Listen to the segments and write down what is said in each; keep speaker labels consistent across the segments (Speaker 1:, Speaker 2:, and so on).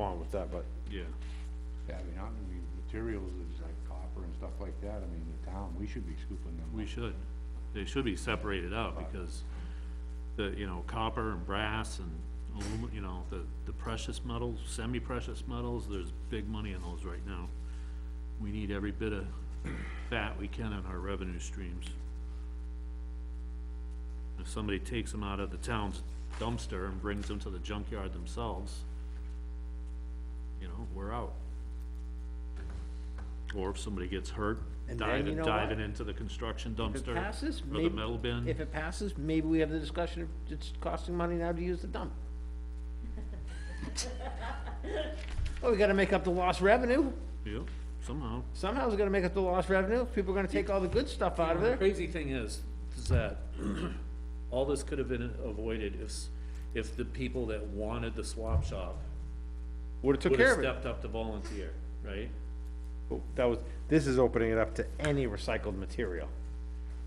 Speaker 1: along with that, but
Speaker 2: Yeah,
Speaker 3: Yeah, I mean, I mean, materials is like copper and stuff like that, I mean, the town, we should be scooping them.
Speaker 2: we
Speaker 3: up.
Speaker 2: should. They should be separated out because the, you know, copper and brass and aluminum, you know, the, the precious metals, semi-precious metals, there's big money in those right now. We need every bit of that we can in our revenue streams. If somebody takes them out of the town's dumpster and brings them to the junkyard themselves, you know, we're out. Or if somebody gets hurt,
Speaker 4: And then you
Speaker 2: diving,
Speaker 4: know what?
Speaker 2: diving into the construction
Speaker 4: If
Speaker 2: dumpster
Speaker 4: it passes,
Speaker 2: or
Speaker 4: maybe.
Speaker 2: the metal
Speaker 4: If
Speaker 2: bin,
Speaker 4: it passes, maybe we have the discussion of it's costing money now to use the dump. Well, we gotta make up the lost revenue.
Speaker 2: yeah, somehow.
Speaker 4: Somehow we're gonna make up the lost revenue. People are gonna take all the good stuff out of
Speaker 2: The
Speaker 4: there.
Speaker 2: Crazy thing is, is that all this could have been avoided if, s- if the people that wanted the swap shop
Speaker 1: would've took
Speaker 2: would
Speaker 4: care
Speaker 2: have
Speaker 4: of it.
Speaker 2: stepped up to volunteer, right?
Speaker 1: Oh, that was, this is opening it up to any recycled material.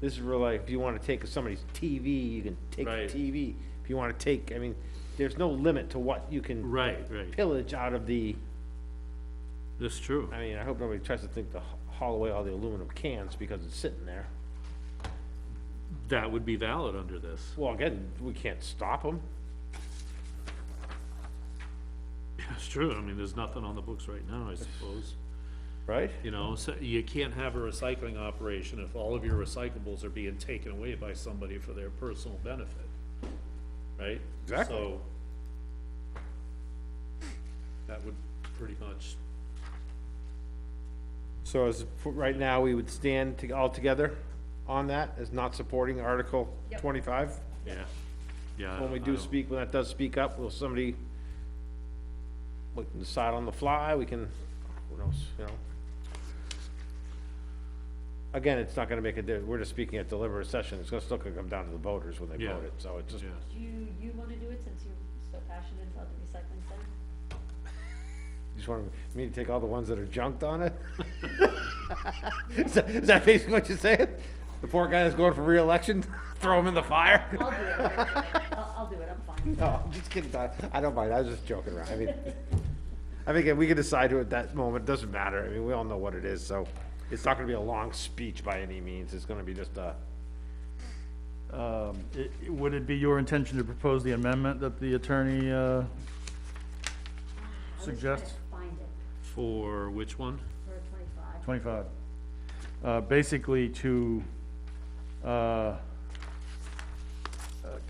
Speaker 1: This is really, if you wanna take somebody's TV, you can take
Speaker 2: Right.
Speaker 1: the TV. If you wanna take, I mean, there's no limit to what you can
Speaker 2: Right, right,
Speaker 1: pillage out of the,
Speaker 2: that's true.
Speaker 1: I mean, I hope nobody tries to think to ha- haul away all the aluminum cans because it's sitting there.
Speaker 2: That would be valid under this.
Speaker 1: Well, again, we can't stop them.
Speaker 2: That's true, I mean, there's nothing on the books right now, I suppose.
Speaker 1: right?
Speaker 2: You know, so you can't have a recycling operation if all of your recyclables are being taken away by somebody for their personal benefit, right?
Speaker 1: Exactly.
Speaker 2: So that would pretty much,
Speaker 1: So as, for right now, we would stand to, all together on that, as not supporting Article twenty-five?
Speaker 2: yeah, yeah.
Speaker 1: When
Speaker 2: I
Speaker 1: we do
Speaker 2: don't-
Speaker 1: speak, when that does speak up, will somebody, we can decide on the fly, we can, who knows, you know? Again, it's not gonna make a, di- we're just speaking at deliberative session, it's gonna still gonna come down to the voters when they
Speaker 2: Yeah.
Speaker 1: vote it, so it's just,
Speaker 2: Yeah,
Speaker 5: Do you, you wanna do it since you're so passionate about the recycling center?
Speaker 1: just want me to take all the ones that are junked on it? Is that- is that basically what you're saying? The poor guy that's going for reelection, throw him in the fire?
Speaker 5: I'll do it, I'll, I'll do it, I'm fine.
Speaker 1: No, I'm just kidding, Don. I don't mind. I was just joking around. I mean, I think we can decide who at that moment. Doesn't matter. I mean, we all know what it is, so it's not gonna be a long speech by any means. It's gonna be just a,
Speaker 6: Um, i- i- Would it be your intention to propose the amendment that the attorney, uh, Suggest-
Speaker 5: I was trying to find it
Speaker 2: for which one?
Speaker 5: for twenty-five.
Speaker 6: 25, uh, basically to, uh, uh,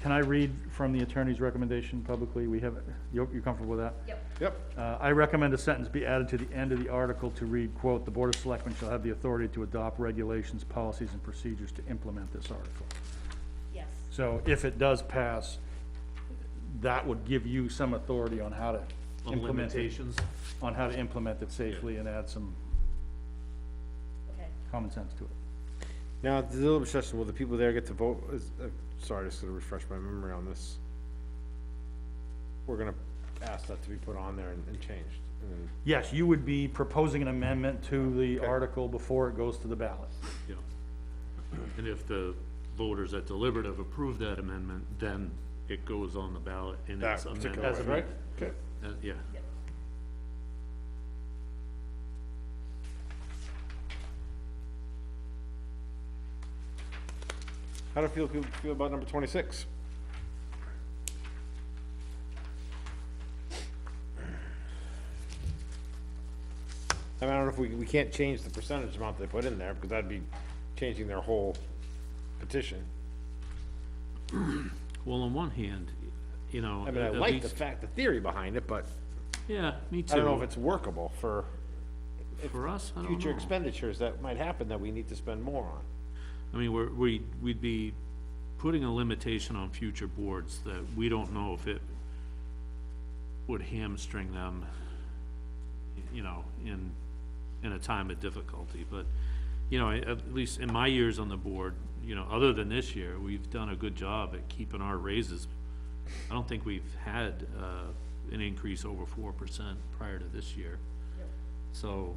Speaker 6: can I read from the attorney's recommendation publicly? We have, you're you're comfortable with that?
Speaker 5: Yep,
Speaker 1: yep,
Speaker 6: Uh, I recommend a sentence be added to the end of the article to read, quote, "The Board of Selectmen shall have the authority to adopt regulations, policies, and procedures to implement this article."
Speaker 5: yes,
Speaker 6: So if it does pass, that would give you some authority on how to
Speaker 2: On
Speaker 6: implement it,
Speaker 2: limitations?
Speaker 6: on how to implement it safely and add some
Speaker 5: okay.
Speaker 6: common sense to it.
Speaker 1: Now, at the deliberative session, will the people there get to vote? Is, uh, sorry, just to refresh my memory on this. We're gonna ask that to be put on there and, and changed. and then-
Speaker 6: Yes, you would be proposing an amendment to the
Speaker 1: Okay.
Speaker 6: article before it goes to the ballot.
Speaker 2: Yeah. And if the voters at deliberative approve that amendment, then it goes on the ballot and
Speaker 1: That
Speaker 2: it's amended.
Speaker 1: particular
Speaker 6: one,
Speaker 1: right?
Speaker 2: Okay. Yeah.
Speaker 1: How do feel, people feel about number twenty-six? I mean, I don't know if we, we can't change the percentage amount they put in there, because that'd be changing their whole petition.
Speaker 2: Well, on one hand, you know.
Speaker 1: I mean, I
Speaker 2: at
Speaker 1: like the
Speaker 2: least-
Speaker 1: fact, the theory behind it, but
Speaker 2: Yeah, me too.
Speaker 1: I don't know if it's workable for
Speaker 2: For us, I don't
Speaker 1: future
Speaker 2: know.
Speaker 1: expenditures that might happen that we need to spend more on.
Speaker 2: I mean, we're, we, we'd be putting a limitation on future boards that we don't know if it would hamstring them, you know, in, in a time of difficulty, but, you know, at least in my years on the board, you know, other than this year, we've done a good job at keeping our raises. I don't think we've had, uh, an increase over four percent prior to this year. So,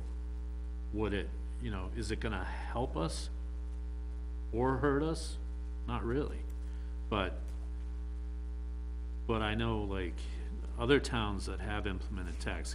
Speaker 2: would it, you know, is it gonna help us? or hurt us? Not really, but, but I know like other towns that have implemented tax